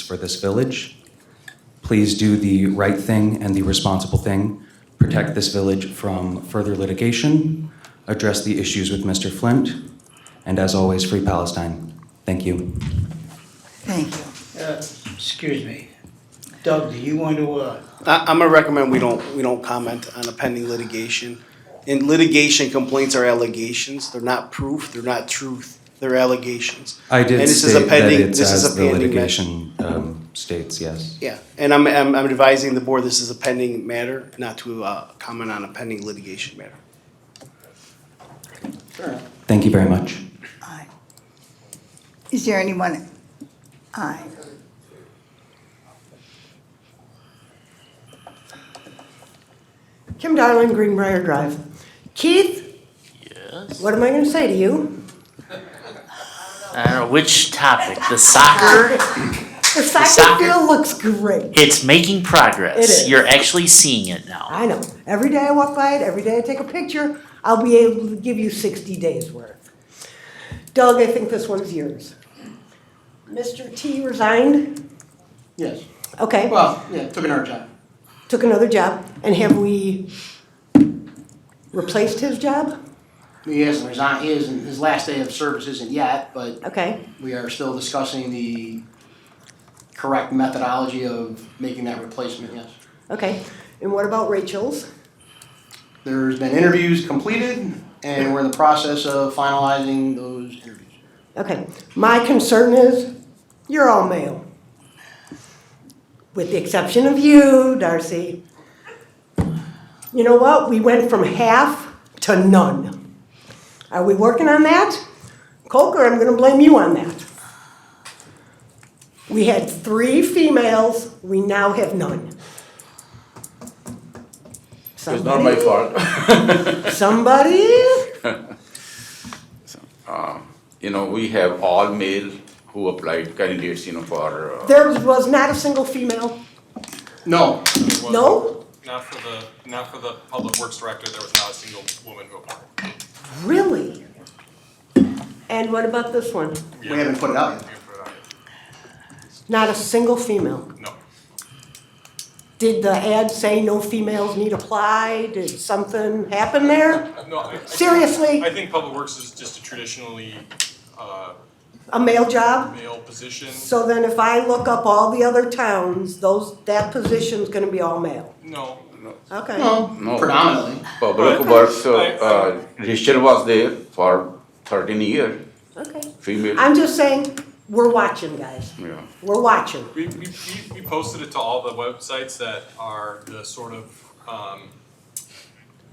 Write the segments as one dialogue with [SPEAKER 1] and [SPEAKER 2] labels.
[SPEAKER 1] for this village. Please do the right thing and the responsible thing. Protect this village from further litigation. Address the issues with Mr. Flint. And as always, Free Palestine. Thank you.
[SPEAKER 2] Thank you.
[SPEAKER 3] Uh, Excuse me. Doug, do you want to, uh,
[SPEAKER 4] I, I'm gonna recommend we don't, we don't comment on a pending litigation. In litigation, complaints are allegations, they're not proof, they're not truth, they're allegations.
[SPEAKER 1] I did
[SPEAKER 4] And this is a
[SPEAKER 1] state that
[SPEAKER 4] pending-
[SPEAKER 1] it's
[SPEAKER 4] this is
[SPEAKER 1] as
[SPEAKER 4] a
[SPEAKER 1] the
[SPEAKER 4] pending
[SPEAKER 1] litigation um, states, yes.
[SPEAKER 4] Yeah, and I'm, I'm, I'm advising the board, this is a pending matter, not to, uh, comment on a pending litigation matter.
[SPEAKER 1] Thank you very much.
[SPEAKER 2] Aye. Is there anyone? Aye.
[SPEAKER 5] Kim Darling, Greenbrier Drive. Keith? Yes? What am I gonna say to you?
[SPEAKER 6] I don't know which topic. The soccer.
[SPEAKER 5] The soccer
[SPEAKER 6] soccer-
[SPEAKER 5] field looks great.
[SPEAKER 6] It's making progress.
[SPEAKER 5] It is.
[SPEAKER 6] You're actually seeing it now.
[SPEAKER 5] I know. Every day I walk by it, every day I take a picture, I'll be able to give you sixty days worth. Doug, I think this one's yours. Mr. T resigned,
[SPEAKER 3] yes,
[SPEAKER 5] okay,
[SPEAKER 3] well, Oh, yeah, took an hard job.
[SPEAKER 5] took another job, and have we replaced his job?
[SPEAKER 3] He hasn't resigned, he isn't, his last day of service isn't yet, but
[SPEAKER 5] Okay,
[SPEAKER 3] we are still discussing the correct methodology of making that replacement, yes.
[SPEAKER 5] okay. And what about Rachel's?
[SPEAKER 3] There's been interviews completed, and we're in the process of finalizing those interviews.
[SPEAKER 5] Okay, my concern is, you're all male. With the exception of you, Darcy. You know what, we went from half to none. Are we working on that? Coker, I'm gonna blame you on that. We had three females, we now have none.
[SPEAKER 7] It's not my fault.
[SPEAKER 5] Somebody,
[SPEAKER 7] You know, we have all male who applied candidates, you know, for, uh,
[SPEAKER 5] there was not a single female,
[SPEAKER 3] No,
[SPEAKER 8] was-
[SPEAKER 5] no?
[SPEAKER 8] Not for the, not for the public works director, there was not a single woman who applied.
[SPEAKER 5] Really? And what about this one?
[SPEAKER 3] we haven't put it out yet.
[SPEAKER 8] Yeah, for that,
[SPEAKER 5] Not a single female.
[SPEAKER 8] No.
[SPEAKER 5] Did the ad say no females need apply? Did something happen there?
[SPEAKER 8] No, I- I.
[SPEAKER 5] Seriously?
[SPEAKER 8] I think public works is just a traditionally, uh,
[SPEAKER 5] A male job?
[SPEAKER 8] male position.
[SPEAKER 5] So then if I look up all the other towns, those, that position's gonna be all male.
[SPEAKER 8] No,
[SPEAKER 5] Okay.
[SPEAKER 3] No,
[SPEAKER 7] No.
[SPEAKER 3] predominantly.
[SPEAKER 7] public works, uh,
[SPEAKER 8] I- I-
[SPEAKER 7] uh, Rachel was there for thirteen years,
[SPEAKER 5] Okay.
[SPEAKER 7] female,
[SPEAKER 5] I'm just saying, we're watching, guys.
[SPEAKER 7] yeah.
[SPEAKER 5] We're watching.
[SPEAKER 8] we, we, we- we posted it to all the websites that are the sort of, um,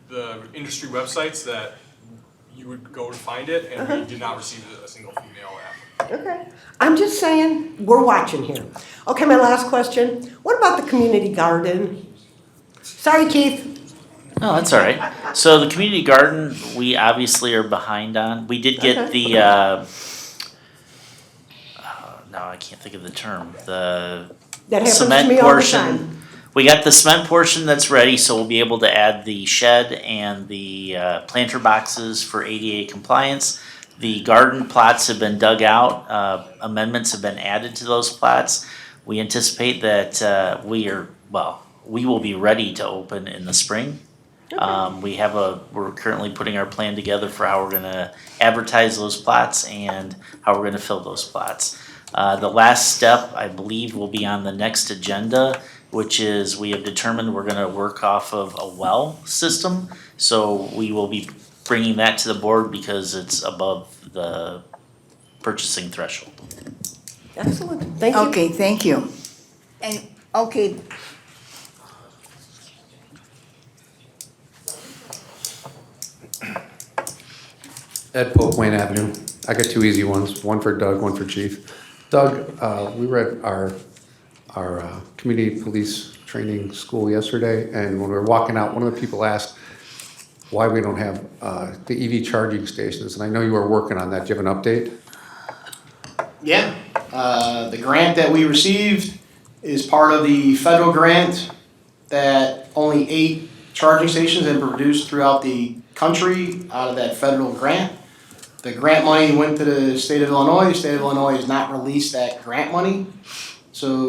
[SPEAKER 8] the industry websites that you would go to find it, and we did not receive a single female applicant.
[SPEAKER 5] Okay. I'm just saying, we're watching here. Okay, my last question. What about the community garden? Sorry, Keith.
[SPEAKER 6] No, that's all right. So the community garden, we obviously are behind on. We did get
[SPEAKER 5] Okay.
[SPEAKER 6] the. Uh, uh, no, I can't think of the term. The
[SPEAKER 5] That happens to
[SPEAKER 6] cement
[SPEAKER 5] me all the time.
[SPEAKER 6] portion. We got the cement portion that's ready, so we'll be able to add the shed and the uh, planter boxes for ADA compliance. The garden plots have been dug out, uh, amendments have been added to those plots. We anticipate that uh, we are, well, we will be ready to open in the spring. Um, We have a, we're currently putting our plan together for how we're gonna advertise those plots and how we're gonna fill those plots. Uh, The last step, I believe, will be on the next agenda, which is we have determined we're gonna work off of a well system. So we will be bringing that to the board because it's above the purchasing threshold.
[SPEAKER 5] Excellent, thank you.
[SPEAKER 2] Okay, thank you. And, okay.
[SPEAKER 9] Ed Pope, Wayne Avenue. I got two easy ones, one for Doug, one for Chief. Doug, uh, we were at our, our uh, community police training school yesterday, and when we were walking out, one of the people asked why we don't have uh, the EV charging stations, and I know you are working on that. Do you have an update?
[SPEAKER 3] Yeah, uh, the grant that we received is part of the federal grant that only eight charging stations have been produced throughout the country out of that federal grant. The grant money went to the state of Illinois. The state of Illinois has not released that grant money. So